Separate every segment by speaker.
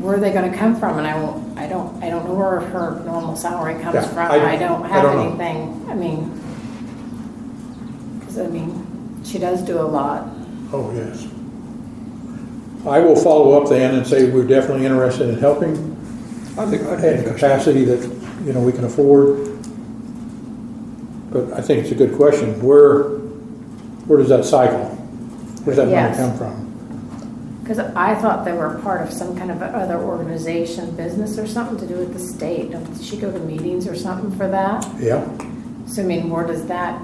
Speaker 1: where are they gonna come from? And I will, I don't, I don't know where her normal salary comes
Speaker 2: Yeah,
Speaker 1: from.
Speaker 2: I-
Speaker 1: I don't
Speaker 2: I
Speaker 1: have
Speaker 2: don't know.
Speaker 1: anything, I mean, because I mean, she does do a lot.
Speaker 2: Oh, yes. I will follow up then and say we're definitely interested in helping
Speaker 3: I think, I
Speaker 2: at a
Speaker 3: think,
Speaker 2: capacity that, you know, we can afford. But I think it's a good question. Where, where does that cycle? Where's that money
Speaker 1: Yes.
Speaker 2: come from?
Speaker 1: Because I thought they were part of some kind of other organization, business or something to do with the state. Does she go to meetings or something for that?
Speaker 2: Yeah,
Speaker 1: So I mean, where does that,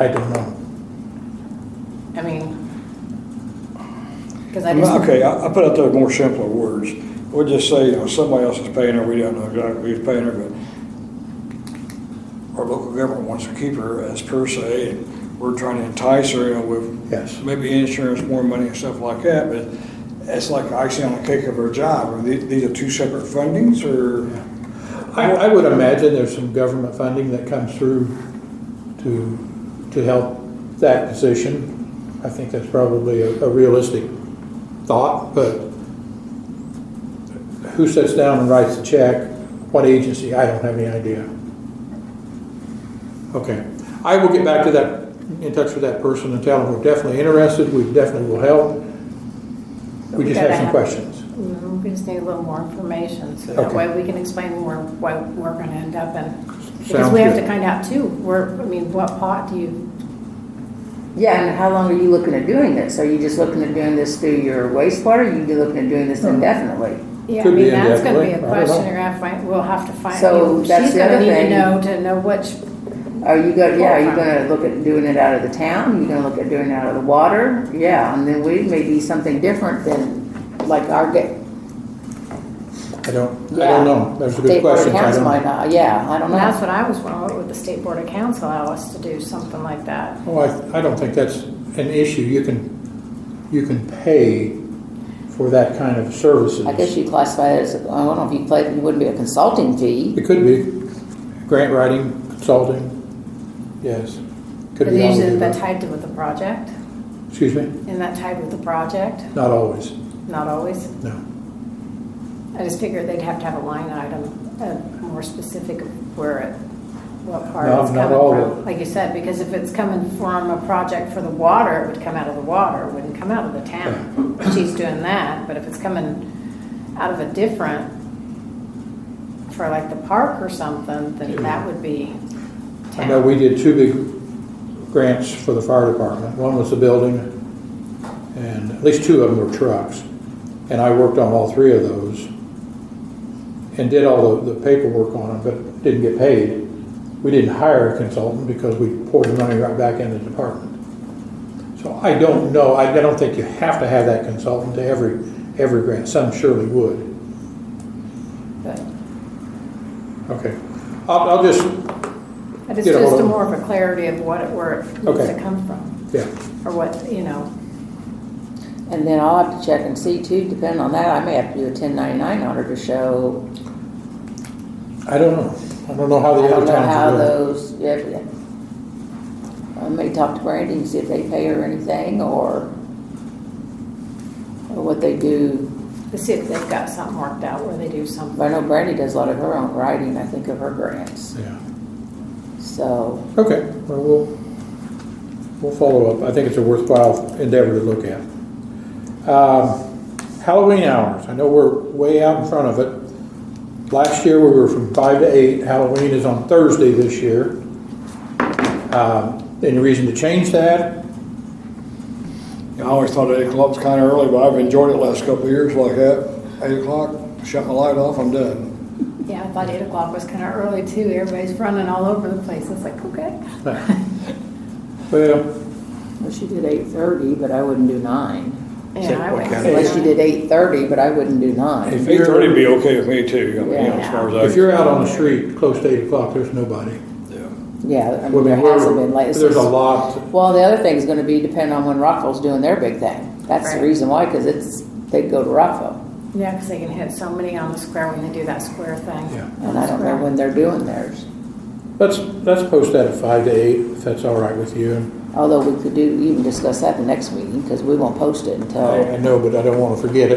Speaker 2: I don't know.
Speaker 1: I mean, because I just,
Speaker 3: okay, I, I put out there more simpler words. We'll just say, you know, somebody else is paying her, we don't know exactly who's paying her, but our local government wants to keep her as per se, and we're trying to entice her, you know, with
Speaker 2: Yes.
Speaker 3: maybe insurance, more money and stuff like that, but it's like icing on the cake of her job. Are these, these are two separate fundings, or?
Speaker 2: I, I would imagine there's some government funding that comes through to, to help that position. I think that's probably a, a realistic thought, but who sits down and writes the check? What agency? I don't have any idea. Okay, I will get back to that, in touch with that person and tell them we're definitely interested, we definitely will help. We just have some questions.
Speaker 1: Mm, we just need a little more information, so that
Speaker 2: Okay.
Speaker 1: way we can explain more why we're gonna end up in. Because
Speaker 2: Sounds
Speaker 1: we have to
Speaker 2: good.
Speaker 1: find out too, where, I mean, what pot do you,
Speaker 4: Yeah, and how long are you looking at doing this? Are you just looking at doing this through your wastewater? Are you looking at doing this indefinitely?
Speaker 1: yeah, I
Speaker 2: Could be
Speaker 1: mean, that's gonna be a
Speaker 2: indefinitely, I don't
Speaker 1: question
Speaker 2: know.
Speaker 1: you're gonna find, we'll have to find.
Speaker 4: So
Speaker 1: I mean,
Speaker 4: that's the other
Speaker 1: She's gonna need
Speaker 4: thing.
Speaker 1: to know to know which,
Speaker 4: Are you go, yeah, are you
Speaker 1: Full-time.
Speaker 4: gonna look at doing it out of the town? You gonna look at doing it out of the water? Yeah, and then we may be something different than, like, our, ga-
Speaker 2: I don't, I
Speaker 4: Yeah.
Speaker 2: don't know. That's a good
Speaker 4: state board
Speaker 2: question. I
Speaker 4: accounts
Speaker 2: don't know.
Speaker 4: might not, yeah, I don't know.
Speaker 1: that's what I was wondering, would the state board of council allow us to do something like that?
Speaker 2: Oh, I, I don't think that's an issue. You can, you can pay for that kind of services.
Speaker 4: I guess you classify it as, I don't know if you play, it wouldn't be a consulting fee.
Speaker 2: It could be grant writing, consulting, yes. Could
Speaker 1: But
Speaker 2: be all of the
Speaker 1: usually is that
Speaker 2: above.
Speaker 1: tied to with the project?
Speaker 2: Excuse me?
Speaker 1: Isn't that tied with the project?
Speaker 2: Not always,
Speaker 1: Not always.
Speaker 2: no.
Speaker 1: I just figured they'd have to have a line item, uh, more specific of where it, what part
Speaker 2: No,
Speaker 1: it's
Speaker 2: not
Speaker 1: coming
Speaker 2: all of
Speaker 1: from. Like you said, because if it's coming from a project for the water, it would come out of the water, it wouldn't come out of the town. She's doing that, but if it's coming out of a different, for like the park or something, then that would be
Speaker 2: I know
Speaker 1: town.
Speaker 2: we did two big grants for the fire department. One was the building, and at least two of them were trucks. And I worked on all three of those and did all the the paperwork on them, but didn't get paid. We didn't hire a consultant because we poured the money right back into the department. So I don't know, I I don't think you have to have that consultant to every, every grant. Some surely would.
Speaker 1: But
Speaker 2: Okay. I'll, I'll just,
Speaker 1: but it's
Speaker 2: Get a hold
Speaker 1: just a
Speaker 2: of-
Speaker 1: more of a clarity of what, it- where it needs
Speaker 2: Okay.
Speaker 1: to come from,
Speaker 2: yeah,
Speaker 1: or what, you know.
Speaker 4: And then I'll have to check and see too, depending on that, I may have to do a ten ninety-nine order to show,
Speaker 2: I don't know. I don't know how
Speaker 4: I
Speaker 2: the
Speaker 4: don't
Speaker 2: other towns are doing.
Speaker 4: know how those, yeah. yeah. I may talk to Brandy and see if they pay her anything or, or what they do.
Speaker 1: To see if they've got something worked out where they do something.
Speaker 4: But I know Brandy does a lot of her own writing, I think, of her grants,
Speaker 2: Yeah.
Speaker 4: so.
Speaker 2: Okay, well, we'll, we'll follow up. I think it's a worthwhile endeavor to look at. Um, Halloween hours, I know we're way out in front of it. Last year, we were from five to eight. Halloween is on Thursday this year. Um, Any reason to change that?
Speaker 3: I always thought eight o'clock's kind of early, but I've enjoyed it last couple of years like that. Eight o'clock, shut my light off, I'm done.
Speaker 1: Yeah, I thought eight o'clock was kind of early too. Everybody's running all over the place. It's like, okay.
Speaker 2: Well,
Speaker 4: Well, she did eight thirty, but I wouldn't do nine.
Speaker 1: Yeah, I
Speaker 3: what
Speaker 1: went-
Speaker 3: kind of-
Speaker 4: Unless she did eight thirty, but I wouldn't do nine.
Speaker 2: If
Speaker 3: Eight
Speaker 2: you're-
Speaker 3: thirty would be okay with me too, I mean, you know, as far as I.
Speaker 2: if you're out on the street close to eight o'clock, there's nobody.
Speaker 3: Yeah.
Speaker 4: Yeah, I
Speaker 2: Well,
Speaker 4: mean, there hasn't
Speaker 2: we're-
Speaker 4: been late.
Speaker 2: There's a lot.
Speaker 4: Well, the other thing's gonna be depending on when Rockville's doing their big thing. That's the
Speaker 1: Right.
Speaker 4: reason why, cause it's, they go to Rockville.
Speaker 1: Yeah, because they can hit so many on the square when they do that square thing.
Speaker 2: Yeah.
Speaker 4: And I don't know when they're doing theirs.
Speaker 2: Let's, let's post that at five to eight, if that's all right with you. And
Speaker 4: Although we could do, even discuss that the next meeting, because we won't post it until.
Speaker 2: I I know, but I don't want to forget it.